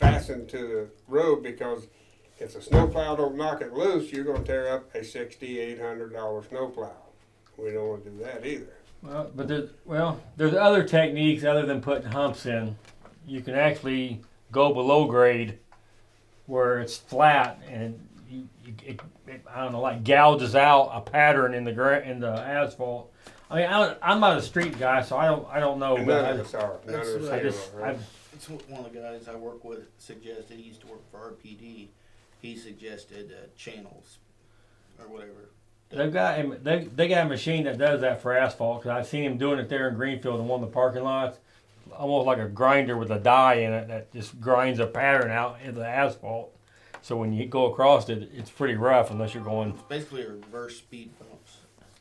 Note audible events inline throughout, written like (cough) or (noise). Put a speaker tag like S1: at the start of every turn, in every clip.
S1: nothing to the road because if the snowplow don't knock it loose, you're gonna tear up a sixty, eight hundred dollar snowplow. We don't wanna do that either.
S2: Well, but there's, well, there's other techniques other than putting humps in. You can actually go below grade, where it's flat and you, you it, it, I don't know, like gouges out a pattern in the gra- in the asphalt. I mean, I don't, I'm not a street guy, so I don't I don't know,
S1: And
S2: but
S1: none of
S2: Oh, I,
S1: us are, none of us
S2: I
S1: here
S2: just
S1: are,
S2: I,
S1: right?
S3: It's what one of the guys I work with suggested. He used to work for RPD. He suggested uh, channels or whatever.
S2: they've got a, they they got a machine that does that for asphalt because I've seen him doing it there in Greenfield in one of the parking lots, almost like a grinder with a die in it that just grinds a pattern out in the asphalt. So when you go across it, it's pretty rough unless you're going.
S3: It's basically a reverse speed bumps,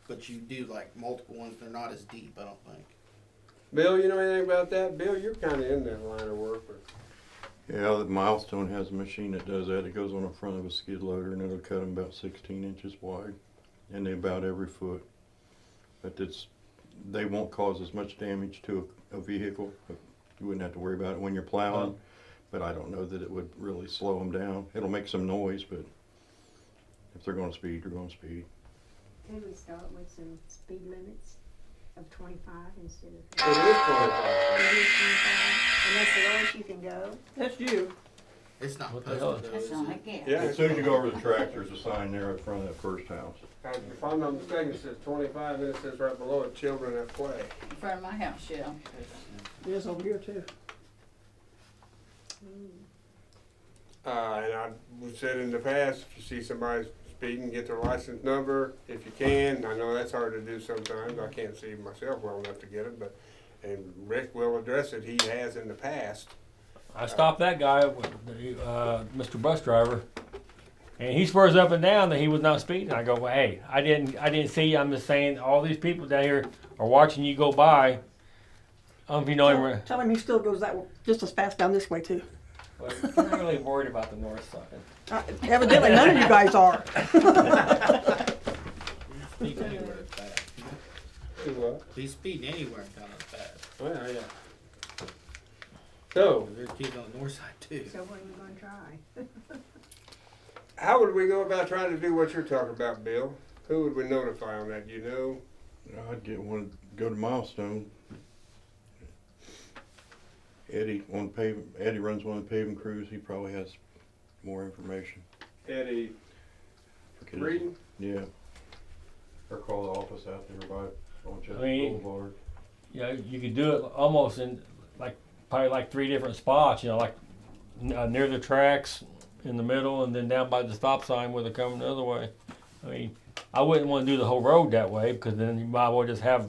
S3: but you do like multiple ones. They're not as deep, I don't think.
S1: Bill, you know anything about that? Bill, you're kinda in that line of work, but
S4: Yeah, the Milestone has a machine that does that. It goes on the front of a skid loader and it'll cut them about 16 inches wide and they about every foot. But it's, they won't cause as much damage to a, a vehicle. You wouldn't have to worry about it when you're plowing. But I don't know that it would really slow them down. It'll make some noise, but if they're going to speed, they're going to speed.
S5: Can we start with some speed limits of twenty-five instead of
S1: it is twenty-five.
S5: thirty, twenty-five? And that's the lowest you can go?
S6: That's you.
S3: It's not
S2: What the hell?
S3: posted though.
S7: That's
S3: is
S7: not a
S3: it?
S7: gift.
S1: Yeah,
S4: As soon as you go over the track, there's a sign there in front of that first house.
S1: if I'm not mistaken, it says twenty-five and it says right below it, children at play.
S7: In front of my house, yeah.
S6: It is over here too.
S1: Uh, and I, we've said in the past, if you see somebody speeding, get their license number if you can. I know that's hard to do sometimes. I can't see myself well enough to get it, but, and Rick will address it. He has in the past.
S2: I stopped that guy, with the, uh, Mr. Bus Driver, and he swears up and down that he was not speeding. I go, well, hey, I didn't, I didn't see. you. I'm just saying, all these people down here are watching you go by. I don't know if you know him.
S6: Tell him he still goes that w- just as fast down this way too.
S2: Well, I'm not really worried about the north side.
S6: Uh, evidently, none of you guys are.
S3: Speed anywhere
S7: (laughs)
S3: is bad.
S1: Well,
S3: He's speeding anywhere kind of bad.
S1: yeah. So,
S3: There's kids on the north side too.
S5: So what are you gonna try?
S1: how would we go about trying to do what you're talking about, Bill? Who would we notify on that? Do You know?
S4: I'd get one, go to Milestone. Eddie on paving, Eddie runs one of the paving crews, he probably has more information.
S1: Eddie
S4: Forget his-
S1: Reed?
S4: Yeah. Or call the office out there by, on Chester
S2: I mean-
S4: Boulevard.
S2: you know, you could do it almost in like probably like three different spots. You know, like n- uh, near the tracks, in the middle, and then down by the stop sign where they're coming the other way. I mean, I wouldn't want to do the whole road that way because then you might as well just have.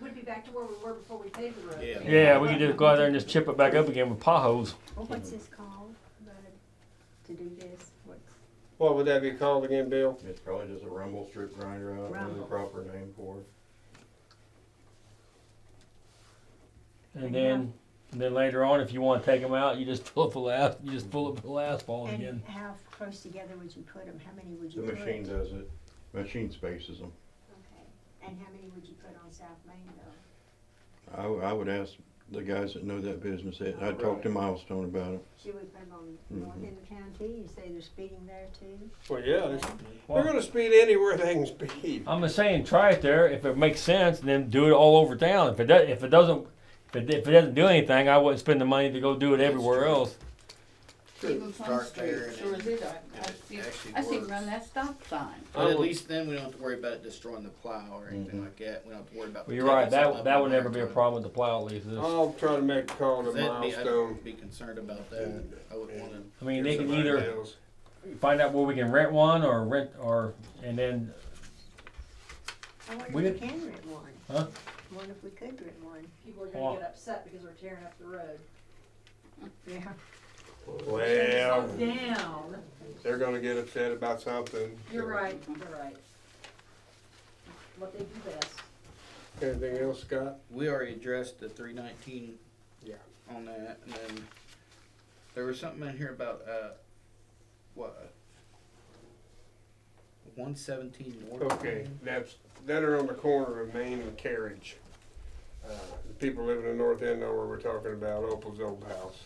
S5: We'd be back to where we were before we paved the road.
S3: Yeah.
S2: Yeah, we could just go out there and just chip it back up again with potholes.
S5: Well, what's this called, bud, to do this? What's,
S1: What would that be called again, Bill?
S4: It's probably just a rumble strip grinder, I don't know the
S5: Rumble.
S4: proper name for it.
S2: And then, and then later on, if you want to take them out, you just fill it full of as- you just fill it full of asphalt
S5: and
S2: again.
S5: how close together would you put them? How many would
S4: The
S5: you put?
S4: machine does it, machine spaces them.
S5: Okay. And how many would you put on South Main though?
S4: I, w- I would ask the guys that know that business, I- I'd talk to Milestone about it.
S5: Should we put them on north end of town too? You say they're speeding there too?
S1: Well, yeah, they- they're
S2: Well,
S1: gonna speed anywhere (laughs) they can speed.
S2: I'm just saying, try it there. If it makes sense, then do it all over town. If it does, if it doesn't, if it, if it doesn't do anything, I wouldn't spend the money to go do it everywhere
S3: true.
S2: else.
S7: Even Plum
S3: Start
S7: Street,
S3: there and
S7: sure
S3: it-
S7: as it, I, I
S3: it
S7: see,
S3: actually
S7: I see
S3: works.
S7: run that stop sign.
S3: But at least then we don't have to worry about it destroying the plow or anything
S4: Mhm.
S3: like that. We don't have to worry about.
S2: But
S3: the
S2: Mm-hmm. you're right.
S3: tickets up
S2: That that
S3: in
S2: would
S3: there
S2: never be a
S3: to it.
S2: problem with the plow at least. It's-
S1: I'll try to make a call to
S3: That'd be-
S1: Milestone.
S3: I'd be concerned about that. I would want to.
S2: I
S1: Here's
S2: mean, they can
S1: somebody
S2: either
S1: else.
S2: find out where we can rent one or rent or and then
S5: I
S2: We
S5: wonder if
S2: did-
S5: we can rent one.
S2: Huh?
S5: I wonder if we could rent one.
S8: People are
S2: Well-
S8: gonna get upset because we're tearing up the road.
S5: Yeah.
S1: Well,
S8: Down,
S1: they're gonna get upset about something.
S8: you're right, you're right. What they do best.
S1: Anything else, Scott?
S3: We already addressed the three nineteen.
S1: Yeah.
S3: On that, and then there was something in here about, uh, what? One seventeen north.
S1: Okay, that's, that are on the corner of Main and Carriage. Uh, the people living in the north end know where we're talking about, Opal's old house.